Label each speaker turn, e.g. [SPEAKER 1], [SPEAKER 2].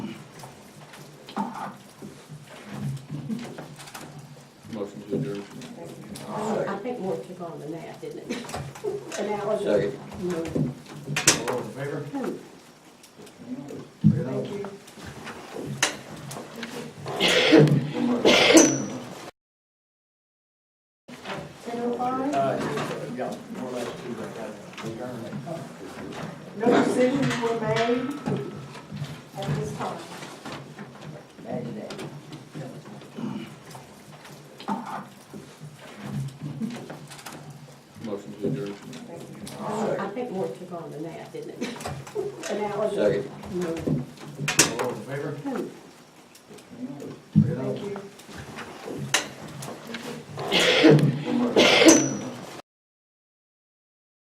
[SPEAKER 1] think more took on than that, didn't it? An hour.
[SPEAKER 2] Second.
[SPEAKER 3] All in favor?
[SPEAKER 1] Thank you. Senator Farman?
[SPEAKER 3] Uh, yeah, more or less two, I got it. Adjourned.
[SPEAKER 4] No decisions were made at this time. Bad day.
[SPEAKER 2] Motion to adjourn.
[SPEAKER 1] I think more took on than that, didn't it? An hour.
[SPEAKER 2] Second.
[SPEAKER 3] All in favor?
[SPEAKER 4] Thank you.
[SPEAKER 3] Thank you.